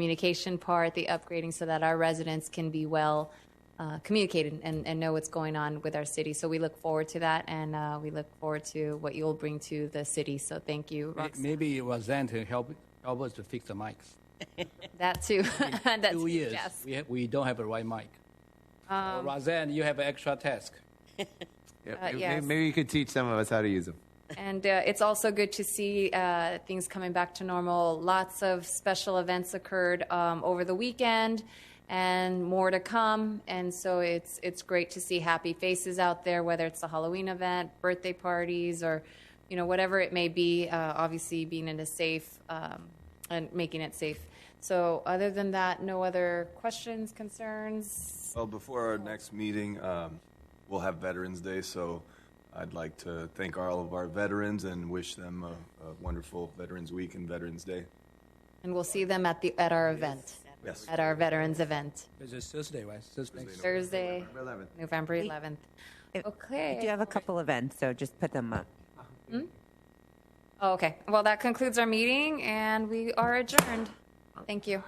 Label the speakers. Speaker 1: communication part, the upgrading, so that our residents can be well uh, communicated and, and know what's going on with our city. So we look forward to that, and uh, we look forward to what you'll bring to the city. So thank you,
Speaker 2: May-
Speaker 1: Roxanne.
Speaker 2: Maybe it was then to help, help us to fix the mics.
Speaker 1: That too. That's
Speaker 2: Two years,
Speaker 1: Yes.
Speaker 2: we, ha- we don't have a right mic. So Roseanne, you have an extra task.
Speaker 3: Yeah,
Speaker 1: Uh,
Speaker 3: may-
Speaker 1: yes.
Speaker 3: Maybe you could teach some of us how to use them.
Speaker 1: And uh, it's also good to see uh, things coming back to normal. Lots of special events occurred um, over the weekend, and more to come. And so it's it's great to see happy faces out there, whether it's the Halloween event, birthday parties, or you know whatever it may be. Uh, obviously, being in a safe um, and making it safe. So, other than that, no other questions, concerns.
Speaker 4: Well, before our next meeting, um, we'll have Veterans Day, so I'd like to thank all of our veterans and wish them a, a wonderful Veterans Week and Veterans Day.
Speaker 1: And we'll see them at the at our event,
Speaker 4: Yes.
Speaker 1: at our veterans event.
Speaker 2: It's just Thursday, right? Thursday.
Speaker 1: Thursday,
Speaker 3: Eleven.
Speaker 1: November 11th.
Speaker 5: If-
Speaker 1: Okay.
Speaker 5: We eh, do have a couple events, so just put them up.
Speaker 1: Oh, Okay. Well, that concludes our meeting and we are adjourned. Thank you.